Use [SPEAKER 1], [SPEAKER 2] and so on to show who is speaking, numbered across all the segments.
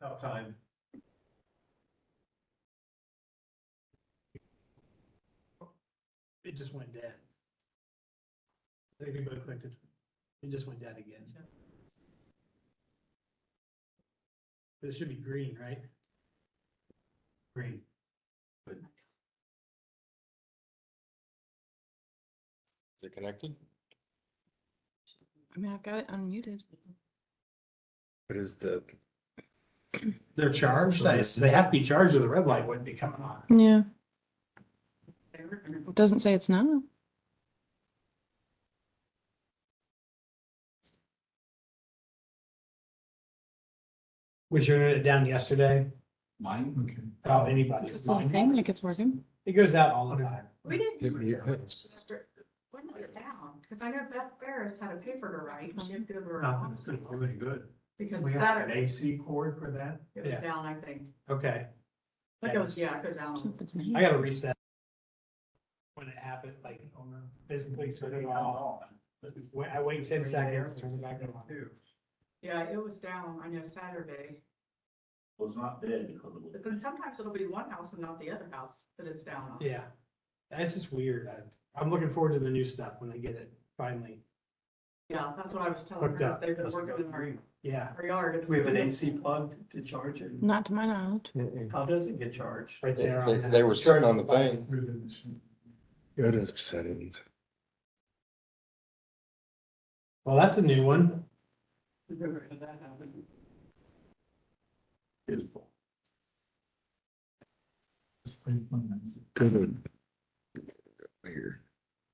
[SPEAKER 1] tough time.
[SPEAKER 2] It just went dead. I think everybody clicked it. It just went dead again. But it should be green, right?
[SPEAKER 1] Green.
[SPEAKER 3] Is it connected?
[SPEAKER 4] I mean, I've got it unmuted.
[SPEAKER 3] What is the?
[SPEAKER 2] They're charged. I- They have to be charged or the red light wouldn't be coming on.
[SPEAKER 4] Yeah. It doesn't say it's not.
[SPEAKER 2] Was your internet down yesterday?
[SPEAKER 5] Mine? Okay.
[SPEAKER 2] Oh, anybody's.
[SPEAKER 4] It's the thing, like it's working.
[SPEAKER 2] It goes out all the time.
[SPEAKER 6] We didn't.
[SPEAKER 3] Hit
[SPEAKER 6] use
[SPEAKER 3] mute
[SPEAKER 6] it.
[SPEAKER 3] buttons.
[SPEAKER 6] When was it down? Because I know Beth Barris had a paper to write. She didn't give her.
[SPEAKER 1] Nothing's
[SPEAKER 6] office
[SPEAKER 1] really good.
[SPEAKER 6] Because
[SPEAKER 1] Uh-huh. We have an
[SPEAKER 6] Saturday,
[SPEAKER 1] AC cord for that.
[SPEAKER 6] it was
[SPEAKER 2] Yeah.
[SPEAKER 6] down, I think.
[SPEAKER 2] Okay,
[SPEAKER 6] It goes, yeah, it goes out.
[SPEAKER 4] Something's
[SPEAKER 2] I
[SPEAKER 4] not.
[SPEAKER 2] gotta reset. When it happened, like physically turn it off. Wait- I wait 10 seconds, turn it back on.
[SPEAKER 1] Too.
[SPEAKER 6] Yeah, it was down, I know Saturday.
[SPEAKER 5] Was not dead.
[SPEAKER 6] But then sometimes it'll be one house and not the other house that it's down on.
[SPEAKER 2] Yeah, that's just weird. I, I'm looking forward to the new stuff when they get it finally.
[SPEAKER 6] Yeah, that's what I was telling
[SPEAKER 2] Hooked
[SPEAKER 6] her.
[SPEAKER 2] up.
[SPEAKER 6] They've been working in our,
[SPEAKER 2] Yeah,
[SPEAKER 6] our yard. It's-
[SPEAKER 1] We have an AC plug to charge it.
[SPEAKER 4] Not to my knowledge.
[SPEAKER 1] How does it get charged?
[SPEAKER 2] right there.
[SPEAKER 3] They-
[SPEAKER 2] on that.
[SPEAKER 3] they were sitting on the thing.
[SPEAKER 1] Well,
[SPEAKER 3] Go to settings.
[SPEAKER 2] Well, that's a new one.
[SPEAKER 3] Go to. Here,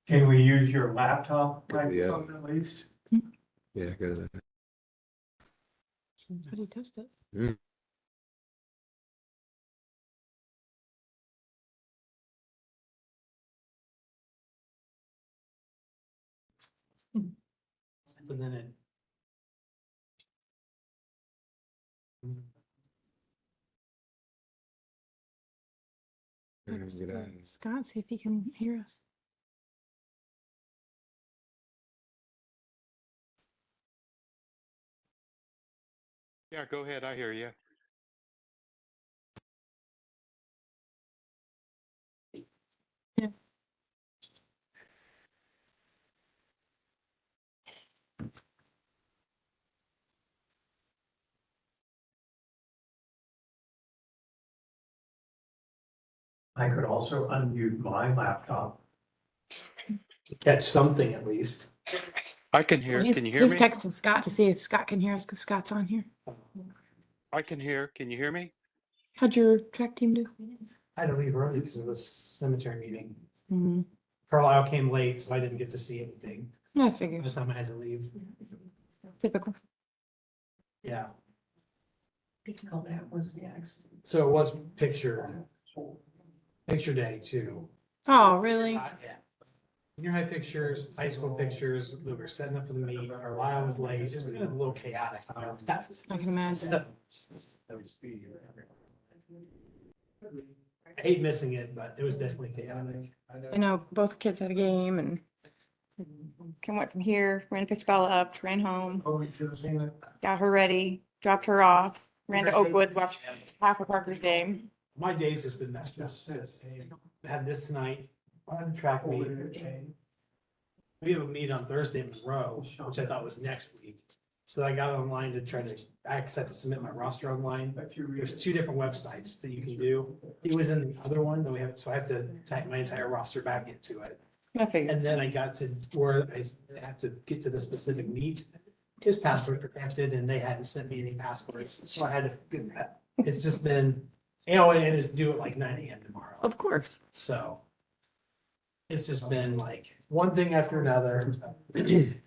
[SPEAKER 1] Can we use your laptop
[SPEAKER 3] Could be, yeah.
[SPEAKER 1] microphone at least?
[SPEAKER 3] yeah, go to that.
[SPEAKER 4] How do you test it?
[SPEAKER 2] But then it.
[SPEAKER 3] Let's get out.
[SPEAKER 4] Scott, see if he can hear us.
[SPEAKER 7] Yeah, go ahead. I hear you.
[SPEAKER 1] I could also unmute my laptop.
[SPEAKER 2] Catch something at least.
[SPEAKER 7] I can hear.
[SPEAKER 4] He's-
[SPEAKER 7] Can you hear
[SPEAKER 4] He's
[SPEAKER 7] me?
[SPEAKER 4] texting Scott to see if Scott can hear us because Scott's on here.
[SPEAKER 7] I can hear. Can you hear me?
[SPEAKER 4] How'd your track team do?
[SPEAKER 2] I had to leave early because of the cemetery meeting.
[SPEAKER 4] Hmm,
[SPEAKER 2] Carlisle came late, so I didn't get to see anything. By
[SPEAKER 4] I figured.
[SPEAKER 2] the time I had to leave,
[SPEAKER 4] Typical.
[SPEAKER 2] yeah,
[SPEAKER 6] Because that was the accident.
[SPEAKER 2] so it was picture, picture day too.
[SPEAKER 4] Oh, really?
[SPEAKER 2] Uh, yeah. Junior high pictures, high school pictures, we were setting up for the meet, Carlisle was late, it was kind of a little chaotic. you know, that was-
[SPEAKER 4] I can imagine.
[SPEAKER 2] so- I hate missing it, but it was definitely chaotic.
[SPEAKER 4] I know both kids had a game and Kim went from here, ran and picked Bella up, ran home,
[SPEAKER 1] Oh, you should have seen it.
[SPEAKER 4] got her ready, dropped her off, ran to Oakwood, watched half of Parker's game.
[SPEAKER 2] My day's just been messed up.
[SPEAKER 1] Just says, hey,
[SPEAKER 2] Had this tonight, on the track meet,
[SPEAKER 1] forward it, okay?
[SPEAKER 2] we have a meet on Thursday in
[SPEAKER 1] Oh,
[SPEAKER 2] Monroe, which I thought was next week. So I got online to try to, I had to submit my roster online.
[SPEAKER 1] But you read
[SPEAKER 2] There's
[SPEAKER 1] it.
[SPEAKER 2] two different websites that you can do. It was in the other one that we have, so I have to type my entire roster back into it.
[SPEAKER 4] I figured.
[SPEAKER 2] And then I got to where I have to get to the specific meet. His password protected and they hadn't sent me any passwords, so I had to get that. It's just been, you know, and it's due at like nine AM tomorrow,
[SPEAKER 4] Of course.
[SPEAKER 2] so. It's just been like one thing after another.